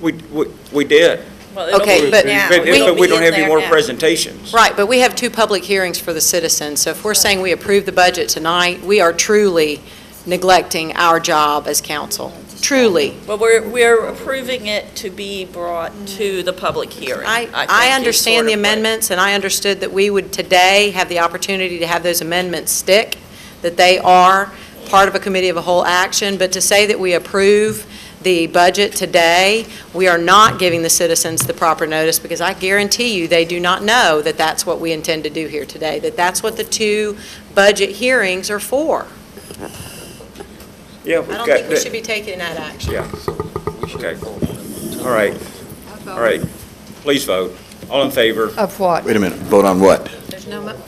We, we, we did. Well, it'll Okay, be but- now. But, It'll but we be don't in have any there more now. presentations. Right, but we have two public hearings for the citizens, so if we're saying we approve the budget tonight, we are truly neglecting our job as council, truly. But we're, we're approving it to be brought to the public hearing. I, think I is sort understand the of what- amendments, and I understood that we would today have the opportunity to have those amendments stick, that they are part of a committee of a whole action, but to say that we approve the budget today, we are not giving the citizens the proper notice, because I guarantee you, they do not know that that's what we intend to do here today, that that's what the two budget hearings are for. Yeah, I we've don't got think we should that. be taking that action. Yeah. Okay. All right, all right. Please vote. All in favor? Of what? Wait a minute, vote on what? There's no mo-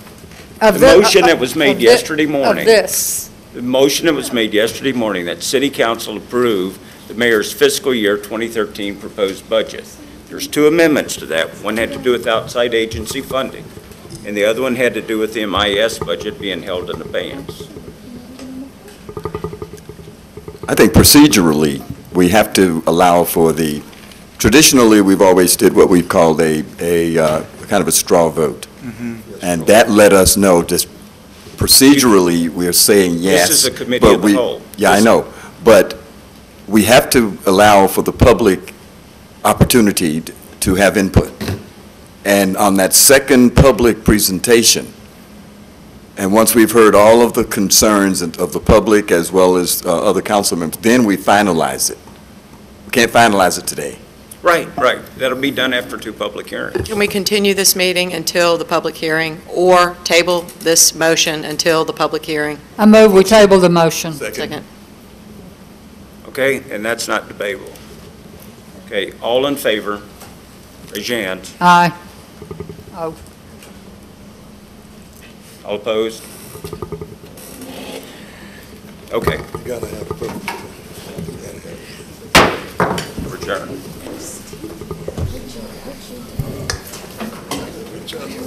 Of The thi- motion that was made of thi- yesterday morning. Of this. The motion that was made yesterday morning that city council approve the mayor's fiscal year 2013 proposed budget. There's two amendments to that. One had to do with outside agency funding, and the other one had to do with the MIS budget being held in abeyance. I think procedurally, we have to allow for the, traditionally, we've always did what we've called a, a, uh, kind of a straw vote. Mm-hmm. And that let us know, just procedurally, we are saying yes. This is a committee but of the we- whole. Yeah, I This- know, but we have to allow for the public opportunity t- to have input. And on that second public presentation, and once we've heard all of the concerns and- of the public as well as uh, other council members, then we finalize it. We can't finalize it today. Right, right. That'll be done after two public hearings. Can we continue this meeting until the public hearing, or table this motion until the public hearing? I move we table the motion. Second. Okay? And that's not debatable. Okay, all in favor, raise your hand. Aye. Oh, All opposed? Okay, You gotta have a public return.